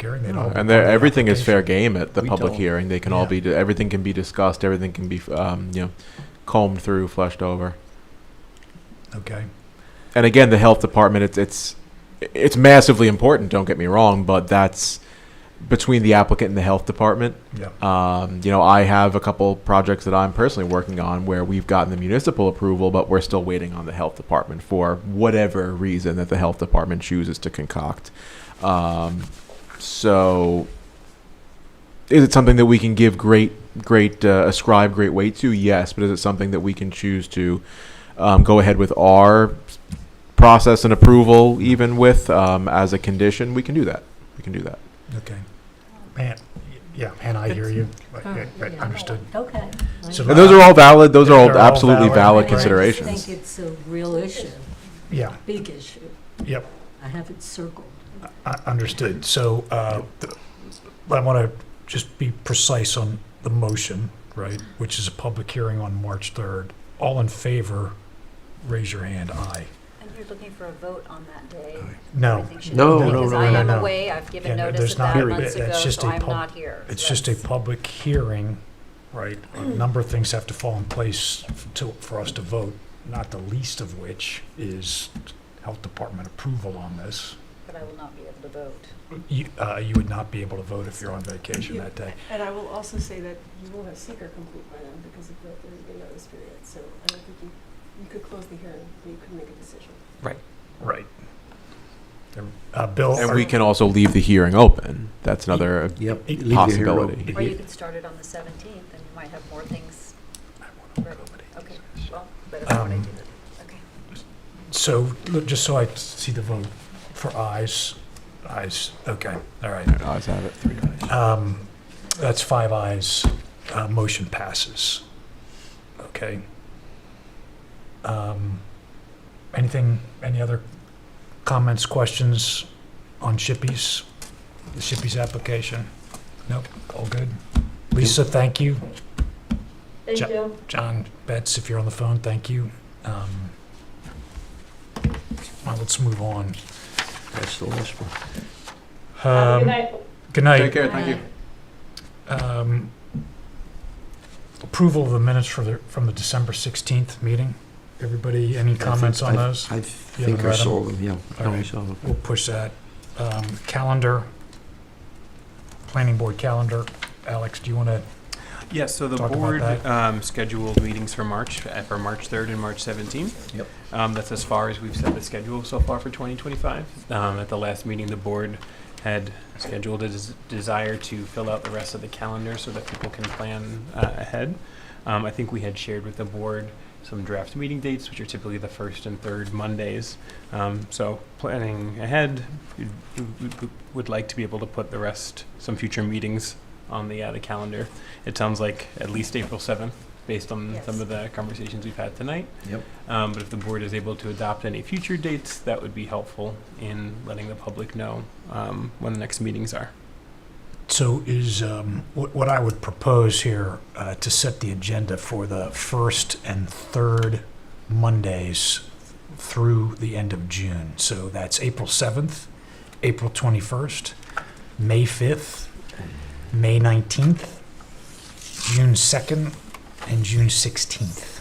hearing. They don't. have to And go there, to the everything is fair application. game at the We public don't- hearing. They can all Yeah. be, everything can be discussed, everything can be, um, you know, combed through, flushed over. Okay. And again, the health department, it's, it's, it's massively important, don't get me wrong, but that's between the applicant and the health department. Yeah. Um, you know, I have a couple projects that I'm personally working on where we've gotten the municipal approval, but we're still waiting on the health department for whatever reason that the health department chooses to concoct. Um, so, is it something that we can give great, great, uh, ascribe great weight to? Yes, but is it something that we can choose to um, go ahead with our process and approval, even with um, as a condition? We can do that. We can do that. Okay. Man. y- Yeah. And I hear you. But, Oh, yeah, but yeah. understood. Okay. So And those are all valid. Those are all They're all absolutely valid, valid, right. I just considerations. think it's a real issue, Yeah. big issue. Yep. I have it circled. I- Understood. So uh, th- I want to just be precise on the motion, right, which is a public hearing on March 3rd. All in favor, raise your hand. Aye. And you're looking for a vote on that day? I No, think should No, be, no, Because no, I no, am no. away, I've given Yeah, no, notice there's of not- that Period. months That's ago, just so a I'm pub- not here. it's just a That's- public hearing, right? A number of things have to fall in place f- to, for us to vote, not the least of which is Health Department approval on this. But I will not be able to vote. You uh, you would not be able to vote if you're on vacation that day. And I will also say that you will have seeker complete by then because of the thirty-day notice period. So I don't think you, you could close the hearing, but you couldn't make a decision. Right. Uh, Bill? And are- we can also leave the hearing open. That's another Yep. Eight leave the hero- possibility. the Or you he- could start it on the 17th, and you might have more things, I wanna accommodate okay, this. well, Um, but if I want to do that, okay. So, look, just so I see the vote for ayes, ayes, okay, all right. Alright, Ayes have it. Three ayes. Um, That's five ayes, Uh, motion passes. Okay. Um, Anything, any other comments, questions on Shippey's, the Shippey's application? Nope, all good. Lisa, thank you. Thank Check. you. John Betts, if you're on the phone, thank you. Um, Well, let's move on. That's the last one. Um, Good night. Take care. Thank you. Um, Approval of the minutes for the, from the December 16th meeting. Everybody, any comments on I- those? I think haven't I read 'em? saw them, yeah. All No, I right. saw them. We'll push that. Um, Calendar, planning board calendar. Alex, do you want to? Yes, so the Talk about board that. um, scheduled meetings for March, uh, for March 3rd and March 17th. Yep. Um, That's as far as we've set the schedule so far for 2025. Um, At the last meeting, the board had scheduled a des- desire to fill out the rest of the calendar so that people can plan uh, ahead. Um, I think we had shared with the board some draft meeting dates, which are typically the first and third Mondays. Um, So planning ahead, we- we- we would like to be able to put the rest, some future meetings on the, uh, the calendar. It sounds like at least April 7th, based on Yes. some of the conversations we've had tonight. Yep. Um, But if the board is able to adopt any future dates, that would be helpful in letting the public know um, when the next meetings are. So is, um, what what I would propose here, uh, to set the agenda for the first and third Mondays through the end of June. So that's April 7th, April 21st, May 5th, May 19th, June 2nd, and June 16th.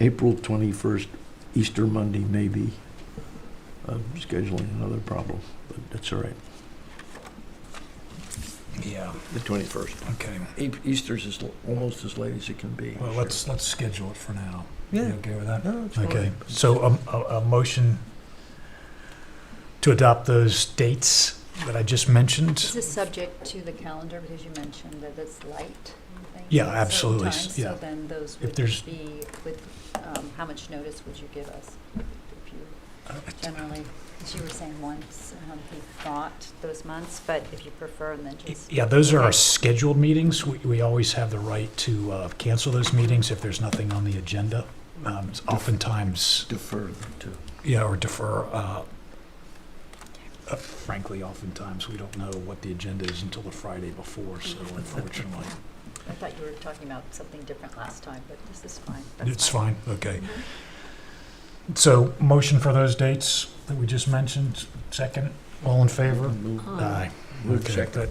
April 21st, Easter Monday, maybe. I'm scheduling another problem, but that's all right. Yeah, The 21st. okay. E- Easter's is l- almost as late as it can be. Well, Sure. let's, let's schedule it for now. You Yeah. okay with that? No, it's Okay, fine. so um, a, a motion to adopt those dates that I just mentioned? This is subject to the calendar, because you mentioned that it's light. I think, Yeah, at certain absolutely, times, yeah. So then those If would there's- be, with, um, how much notice would you give us? If you generally, as you were saying once, um, he thought those months, but if you prefer, then just. Yeah, those are our scheduled meetings. We, we always have the right to uh, cancel those meetings if there's nothing on the agenda. Um, it's Oftentimes, Defer them to. yeah, or defer, uh, uh, frankly, oftentimes, we don't know what the agenda is until the Friday before, so unfortunately. I thought you were talking about something different last time, but this is fine. Mm-hmm. That's It's fine, okay. So motion for those dates that we just mentioned, second? All in favor? Move- Aye. Aye. move Okay, second. that